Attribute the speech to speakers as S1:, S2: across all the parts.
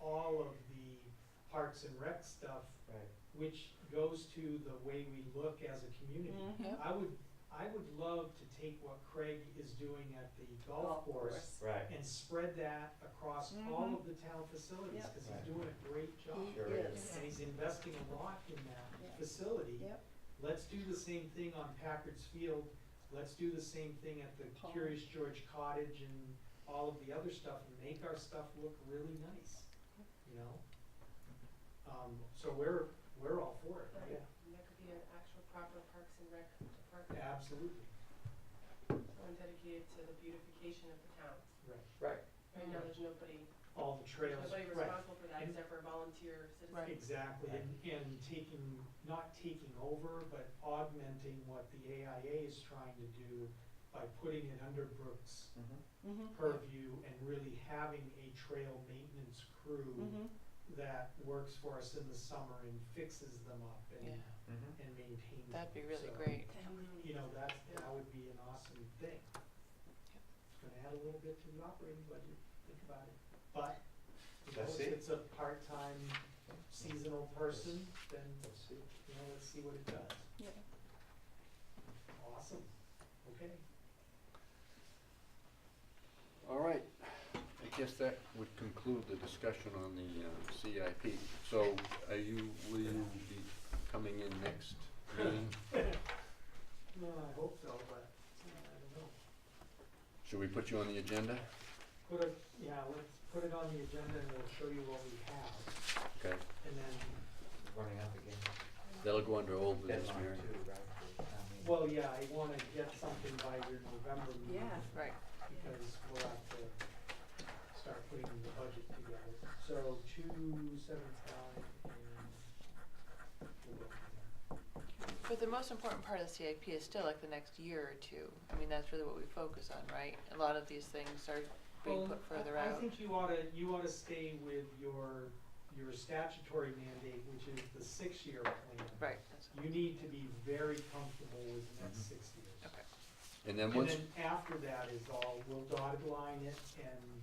S1: all of the parks and rec stuff,
S2: Right.
S1: which goes to the way we look as a community.
S3: Mhm.
S1: I would, I would love to take what Craig is doing at the golf
S3: Golf
S1: course
S3: course. Mm-hmm.
S2: Right.
S1: and spread that across all of the town facilities,
S3: Yep.
S1: because
S2: Right.
S1: he's doing a great job.
S3: He
S2: Sure
S3: is.
S1: And he's investing a lot in that
S3: Yeah.
S1: facility.
S3: Yep,
S1: Let's do the same thing on Packard's Field. Let's do the same thing at the
S3: Pond.
S1: Curious George Cottage and all of the other stuff and make our stuff look really nice, you know? Um, so we're, we're all for it,
S4: Right.
S1: yeah,
S4: And that could be an actual proper Parks and Rec department,
S1: absolutely,
S4: one dedicated to the beautification of the town.
S1: right.
S2: Right.
S4: Right now, there's nobody,
S1: All the
S4: there's
S1: trails,
S4: nobody
S1: right,
S4: responsible for that
S1: And-
S4: except for volunteer citizens.
S3: Right.
S1: exactly, and, and taking, not taking over, but augmenting what the AIA is trying to do by putting it under Brooks'
S2: Mhm.
S3: mhm.
S1: purview and really having a trail maintenance
S5: Mm-hmm.
S1: crew
S3: Mhm.
S1: that works for us in the summer and fixes them up and,
S5: Yeah.
S2: Mhm.
S1: and maintains them.
S5: That'd be really
S1: So,
S5: great.
S1: You know, that's, that would be an awesome thing. It's gonna add a little bit to the operating budget, think about it. But, you know,
S2: That's
S1: if
S2: it.
S1: it's a part-time seasonal person, then,
S2: Let's see.
S1: you know, let's see what it does.
S3: Yeah.
S1: Awesome, okay.
S6: All right, I guess that would conclude the discussion on the uh, CIP. So are you, will you be coming in next meeting?
S1: No, I hope so, but I don't know.
S6: Should we put you on the agenda?
S1: Put it, yeah, let's put it on the agenda and we'll show you what we have,
S6: Okay,
S1: and then,
S2: Running up again.
S4: Mm-hmm.
S6: that'll go under old business,
S2: Deadline
S6: Mary.
S2: too, right? for town meeting.
S1: well, yeah, I wanna get something by your November meeting.
S3: Yeah.
S5: Right.
S1: Because we'll have to start putting the budget together, so two seventy-five and we'll go from there.
S5: But the most important part of the CIP is still like the next year or two. I mean, that's really what we focus on, right? A lot of these things are being put further
S1: I- I
S5: out.
S1: think you oughta, you oughta stay with your, your statutory mandate, which is the six-year plan.
S5: Right, that's,
S1: You need to be very comfortable with the next
S6: Mhm.
S1: six years.
S5: okay.
S6: And then
S1: And
S6: once,
S1: then after that is all, we'll dotted line it and,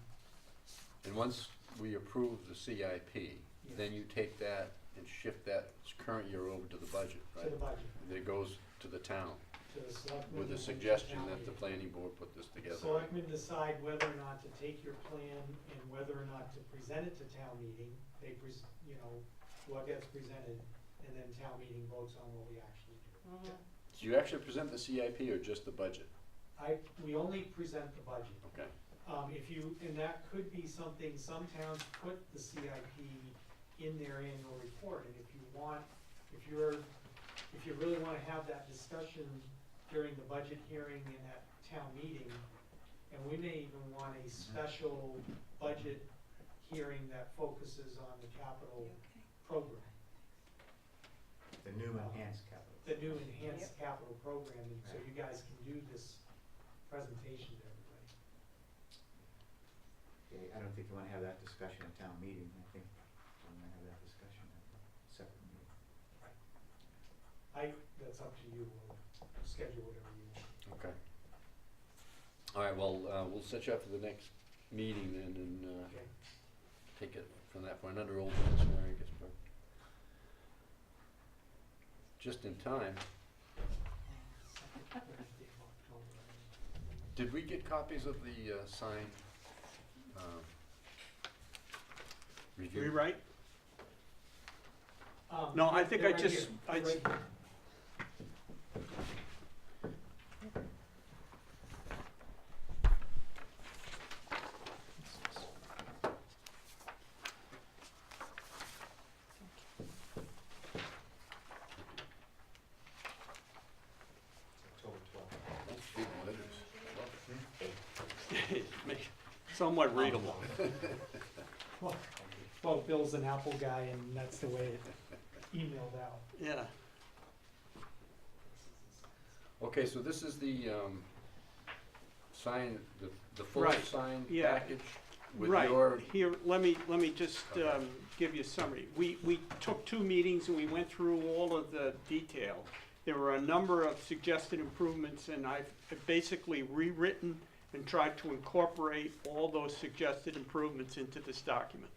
S6: and once we approve the CIP, then you take that and shift that current year over to the budget,
S1: to
S6: right?
S1: the budget,
S6: That goes to the town
S1: to the selectmen.
S6: with
S1: and then to
S6: the suggestion
S1: town
S6: that the
S1: meeting.
S6: planning board put this together.
S1: Selectmen decide whether or not to take your plan and whether or not to present it to town meeting. They pres, you know, what gets presented, and then town meeting votes on what we actually do.
S3: Mhm.
S6: Do you actually present the CIP or just the budget?
S1: I, we only present the budget.
S6: Okay.
S1: Um, if you, and that could be something, some towns put the CIP in their annual report, and if you want, if you're, if you really wanna have that discussion during the budget hearing and at town meeting, and we may even want a special budget hearing that focuses on the capital program,
S2: The new enhanced capital.
S1: the new enhanced capital program, and so you guys can do this presentation to everybody.
S2: Okay, I don't think you want to have that discussion at town meeting. I think you want to have that discussion at a separate meeting.
S1: I, that's up to you, we'll schedule whatever you want.
S6: Okay. All right, well, uh, we'll set you up for the next meeting then and uh,
S1: Okay,
S6: take it from that point, under old business, Mary Ginsburg. Just in time,
S1: Wednesday of October.
S6: did we get copies of the uh, signed um, review?
S7: Rewrite?
S1: Um,
S7: No, I think
S1: they're
S7: I
S1: right
S7: just-
S1: here,
S7: I
S1: right
S7: j-
S1: here.
S2: It's October twelfth.
S6: That's big letters. Love
S7: Make- Somewhat readable.
S1: Well, Well, Bill's an Apple guy and that's the way it emailed out.
S7: Yeah.
S6: it. Okay, so this is the um, sign, the the full
S7: Right,
S6: sign
S7: yeah.
S6: package with your
S7: Right. Here, let me, let me just
S6: Okay.
S7: um, give you a summary. We, we took two meetings and we went through all of the detail. There were a number of suggested improvements and I've basically rewritten and tried to incorporate all those suggested improvements into this document.